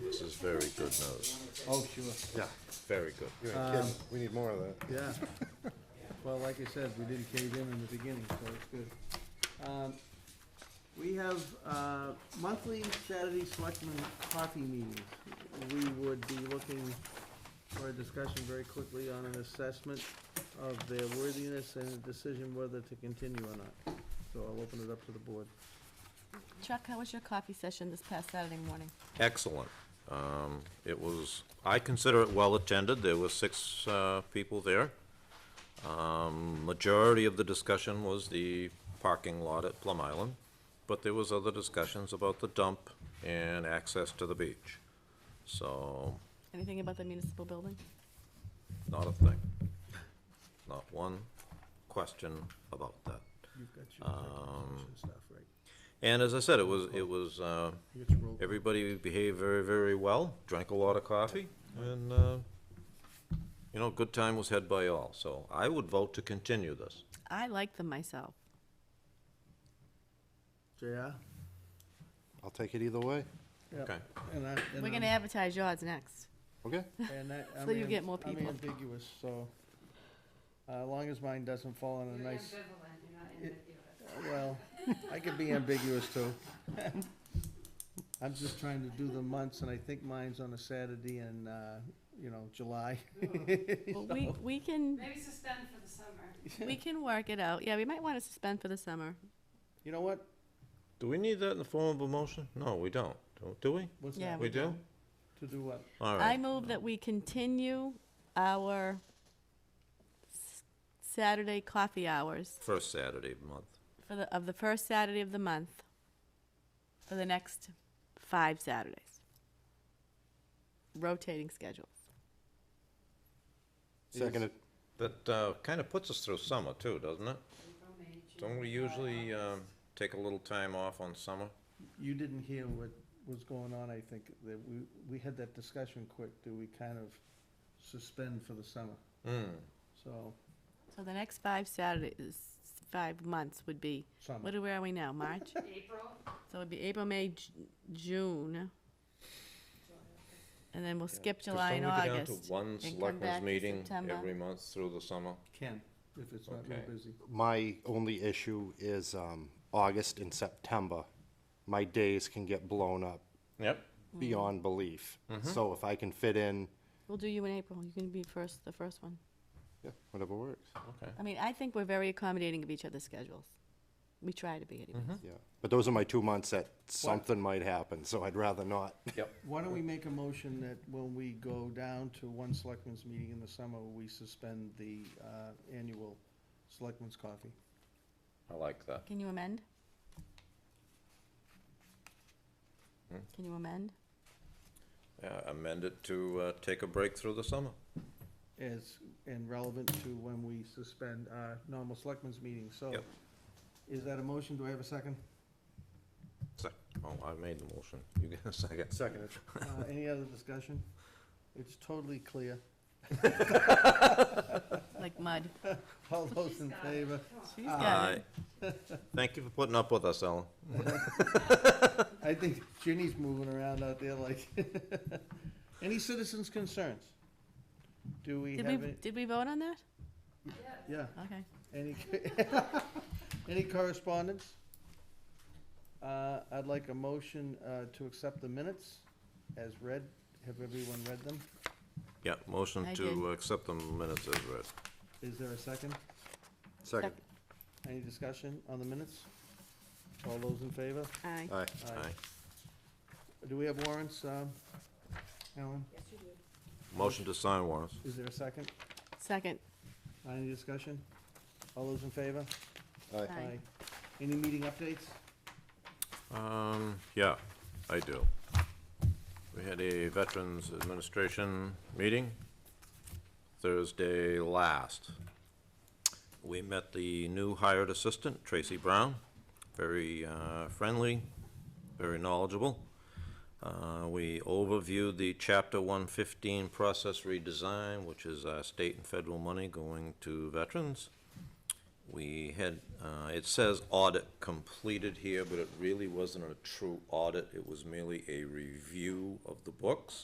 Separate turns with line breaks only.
This is very good news.
Oh, sure,
Yeah. Very good.
You ain't kidding. We need more of that.
yeah. Well, like I said, we didn't cave in in the beginning, so it's good. Um, We have uh, monthly Saturday selectmen coffee meetings. We would be looking for a discussion very quickly on an assessment of their worthiness and a decision whether to continue or not. So I'll open it up to the board.
Chuck, how was your coffee session this past Saturday morning?
Excellent. Um, It was, I consider it well-attended. There were six uh, people there. Um, Majority of the discussion was the parking lot at Plum Island, but there was other discussions about the dump and access to the beach. So,
Anything about the municipal building?
not a thing. Not one question about that.
You've got your executive session stuff, right?
And as I said, it was, it was, uh,
You get to roll.
Everybody behaved very, very well, drank a lot of coffee, and, uh, you know, good time was had by all, so I would vote to continue this.
I like them myself.
JR?
I'll take it either way.
Yep.
Okay.
And I, and
We're
I'm-
gonna advertise yours next.
Okay?
And that, I'm.
So you
am-
get more people.
I'm ambiguous, so, uh, as long as mine doesn't fall on a nice, uh, well, I could be ambiguous too. I'm just trying to do the months, and I think mine's on a Saturday in, uh, you know, July.
Well, we, we can,
Maybe suspend for the summer.
we can work it out. Yeah, we might wanna suspend for the summer.
You know what?
Do we need that in the form of a motion? No, we don't, Do- do we?
What's
Yeah,
that?
We do?
To do what?
All
I
right,
move that we continue our s- Saturday coffee hours
first Saturday of the month.
for the, of the first Saturday of the month for the next five Saturdays. Rotating schedules.
Second it.
That, uh, kinda puts us through summer too, doesn't it? Don't we usually, um, take a little time off on summer?
You didn't hear what was going on, I think, that we, we had that discussion quick, do we kind of suspend for the summer?
Hmm,
So,
So the next five Saturdays, five months would be,
summer.
what, are- where are we now, March?
April,
So it'd be April, May, J- June. And then we'll skip
Could
July and
someone get down to
August.
One
come
selectmen's
back in
meeting
September.
every month through the summer?
Can, if it's not real
Okay.
busy.
My only issue is um, August and September. My days can get blown up
Yep.
Mm-hmm. beyond belief. So if I can fit in,
Mm. We'll do you in April. You can be first, the first one.
yeah, whatever works.
Okay.
I mean, I think we're very accommodating of each other's schedules. We try to be anyway.
Yeah. But those are my two months that something might happen, so I'd rather not.
Yep.
Why don't we make a motion that when we go down to one selectmen's meeting in the summer, we suspend the uh, annual selectmen's coffee?
I like that.
Can you amend? Can you amend?
Yeah, amend it to uh, take a break through the summer.
As, and relevant to when we suspend our normal selectmen's meeting, so.
Yep.
Is that a motion? Do I have a second?
Se- Oh, I made the motion. You get a second.
Second it.
Uh, Any other discussion? It's totally clear.
Like mud.
All those in favor?
She's got
Aye.
it.
Thank you for putting up with us, Ellen.
I think Ginny's moving around out there like. Any citizens' concerns? Do we
Did
have
we,
any?
did we vote on that?
yeah.
Yeah.
Okay.
Any, any correspondence? Uh, I'd like a motion, uh, to accept the minutes as read. Have everyone read them?
Yeah, motion
I
to
did.
accept the minutes as read.
Is there a second?
Second.
Any discussion on the minutes? All those in favor?
Aye.
Aye.
Aye.
Do we have warrants, um, Alan?
Motion to sign warrants.
Is there a second?
Second.
Any discussion? All those in favor?
Aye.
Aye.
Any meeting updates?
Um, yeah, I do. We had a Veterans Administration meeting Thursday last. We met the new hired assistant, Tracy Brown, very uh, friendly, very knowledgeable. Uh, We overviewed the Chapter 115 process redesign, which is uh, state and federal money going to veterans. We had, uh, it says audit completed here, but it really wasn't a true audit. It was merely a review of the books.